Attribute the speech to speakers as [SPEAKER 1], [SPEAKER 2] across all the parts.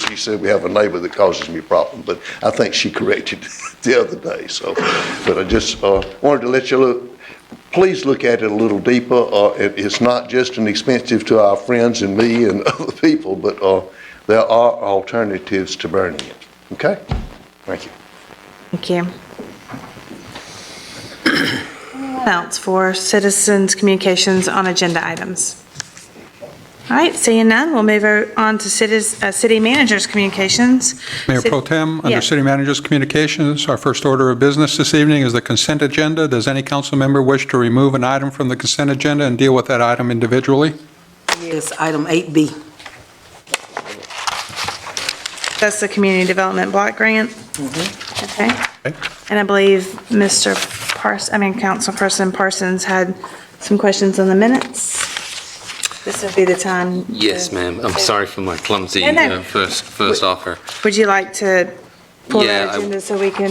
[SPEAKER 1] she said, we have a neighbor that causes me problems, but I think she corrected the other day, so. But I just, uh, wanted to let you look, please look at it a little deeper. Uh, it, it's not just an expensive to our friends and me and other people, but, uh, there are alternatives to burning it, okay? Thank you.
[SPEAKER 2] Thank you. Anyone else for citizens' communications on agenda items? All right, seeing none, we'll move on to cities, uh, city managers' communications.
[SPEAKER 3] Mayor Pro Tem, under
[SPEAKER 2] Yes.
[SPEAKER 3] City Manager's Communications, our first order of business this evening is the consent agenda. Does any council member wish to remove an item from the consent agenda and deal with that item individually?
[SPEAKER 4] Yes, item 8B.
[SPEAKER 2] That's the community development block grant. Okay,
[SPEAKER 3] Okay.
[SPEAKER 2] and I believe Mr. Pars, I mean, Councilperson Parsons had some questions on the minutes. This would be the time. to-
[SPEAKER 5] Yes, ma'am. I'm sorry for my clumsy
[SPEAKER 2] No, no.
[SPEAKER 5] uh, first first offer.
[SPEAKER 2] Would you like to pull
[SPEAKER 5] Yeah,
[SPEAKER 2] that
[SPEAKER 5] I-
[SPEAKER 2] agenda so we can?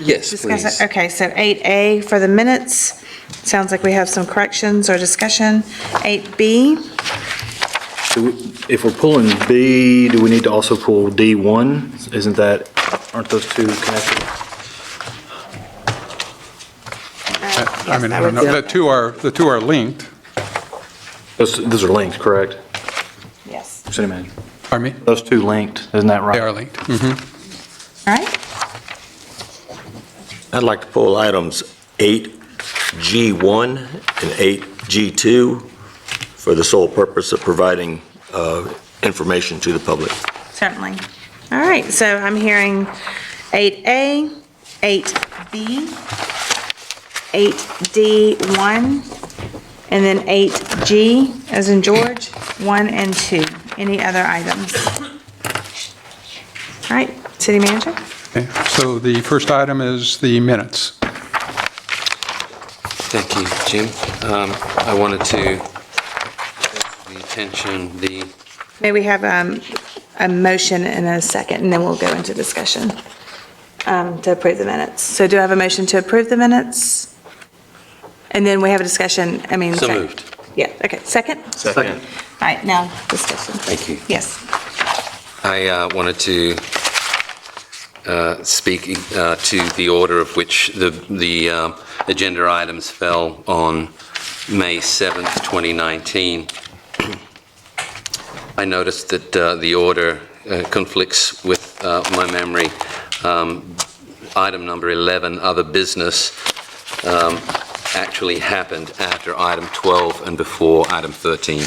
[SPEAKER 5] Yes,
[SPEAKER 2] Discuss
[SPEAKER 5] please.
[SPEAKER 2] it, okay, so 8A for the minutes, sounds like we have some corrections or discussion. 8B,
[SPEAKER 6] Do we- If we're pulling B, do we need to also pull D1? Isn't that, aren't those two connected?
[SPEAKER 3] I mean, I don't know, the two are, the two are linked.
[SPEAKER 6] Those, those are linked, correct?
[SPEAKER 2] yes,
[SPEAKER 6] City manager.
[SPEAKER 3] Pardon me?
[SPEAKER 6] Those two linked, isn't that right?
[SPEAKER 3] They are linked. Mhm.
[SPEAKER 2] all right,
[SPEAKER 7] I'd like to pull items 8G1 and 8G2 for the sole purpose of providing uh, information to the public.
[SPEAKER 2] certainly. All right, so I'm hearing 8A, 8B, 8D1, and then 8G, as in George, 1 and 2. Any other items? All right, city manager?
[SPEAKER 3] Okay. So the first item is the minutes.
[SPEAKER 5] Thank you, Jim. Um, I wanted to the attention, the,
[SPEAKER 2] May we have um, a motion and a second, and then we'll go into discussion um, to approve the minutes. So do I have a motion to approve the minutes? And then we have a discussion, I mean.
[SPEAKER 5] so
[SPEAKER 2] sec-
[SPEAKER 5] moved.
[SPEAKER 2] Yeah, okay, second? All
[SPEAKER 6] Second.
[SPEAKER 2] right, now discussion.
[SPEAKER 5] Thank you.
[SPEAKER 2] Yes.
[SPEAKER 5] I uh, wanted to uh, speak uh, to the order of which the the um, agenda items fell on May 7th, 2019. I noticed that uh, the order uh, conflicts with uh, my memory. Um, Item number 11, other business, um, actually happened after item 12 and before item 13.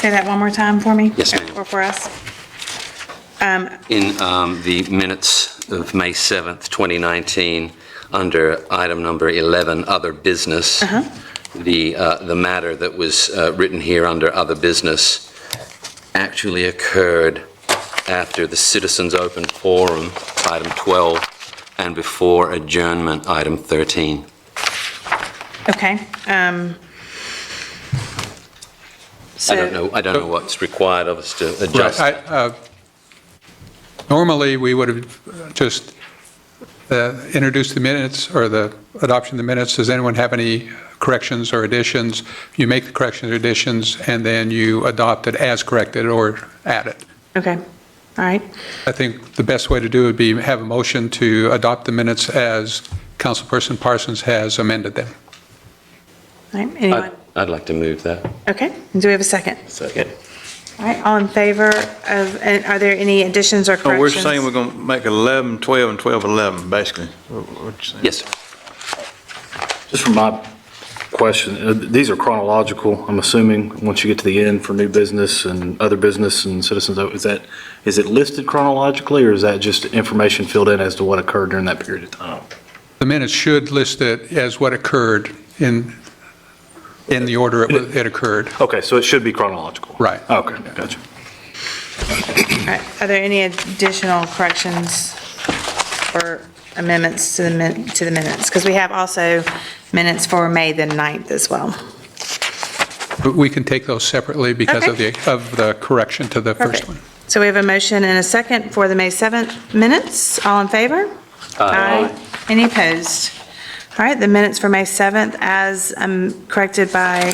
[SPEAKER 2] Say that one more time for me?
[SPEAKER 5] Yes, ma'am.
[SPEAKER 2] Or for us?
[SPEAKER 5] In um, the minutes of May 7th, 2019, under item number 11, other business, the, uh, the matter that was uh, written here under other business actually occurred after the citizens open forum, item 12, and before adjournment, item 13.
[SPEAKER 2] Okay. um,
[SPEAKER 5] I
[SPEAKER 2] So.
[SPEAKER 5] don't know, I don't know what's required of us to
[SPEAKER 3] Right.
[SPEAKER 5] adjust.
[SPEAKER 3] I- uh, Normally, we would have just uh, introduced the minutes or the adoption of the minutes. Does anyone have any corrections or additions? You make the corrections or additions, and then you adopt it as corrected or added.
[SPEAKER 2] Okay, all right.
[SPEAKER 3] I think the best way to do it would be have a motion to adopt the minutes as Councilperson Parsons has amended them.
[SPEAKER 2] All right,
[SPEAKER 5] I'd
[SPEAKER 2] anyone?
[SPEAKER 5] I'd like to move that.
[SPEAKER 2] Okay, and do we have a second?
[SPEAKER 7] Second.
[SPEAKER 2] All right, all in favor of, and are there any additions or
[SPEAKER 8] So Oh, we're
[SPEAKER 2] corrections?
[SPEAKER 8] saying we're going to make 11, 12, and 12, 11, basically. What you saying?
[SPEAKER 5] Yes, sir.
[SPEAKER 6] Just for my question, uh, these are chronological, I'm assuming, once you get to the end for new business and other business and citizens, is that, is it listed chronologically, or is that just information filled in as to what occurred during that period of time?
[SPEAKER 3] The minutes should list it as what occurred in, in the order it wa- it occurred.
[SPEAKER 6] Okay, so it should be chronological?
[SPEAKER 3] Right.
[SPEAKER 6] Okay, gotcha.
[SPEAKER 2] All right, Are there any additional corrections or amendments to the min, to the minutes? Because we have also minutes for May the 9th as well.
[SPEAKER 3] But we can take those separately because of
[SPEAKER 2] Okay.
[SPEAKER 3] the, of the correction to the first
[SPEAKER 2] Perfect.
[SPEAKER 3] one.
[SPEAKER 2] So we have a motion and a second for the May 7th minutes. All in favor? Aye. Any opposed? All right, the minutes for May 7th as um, corrected by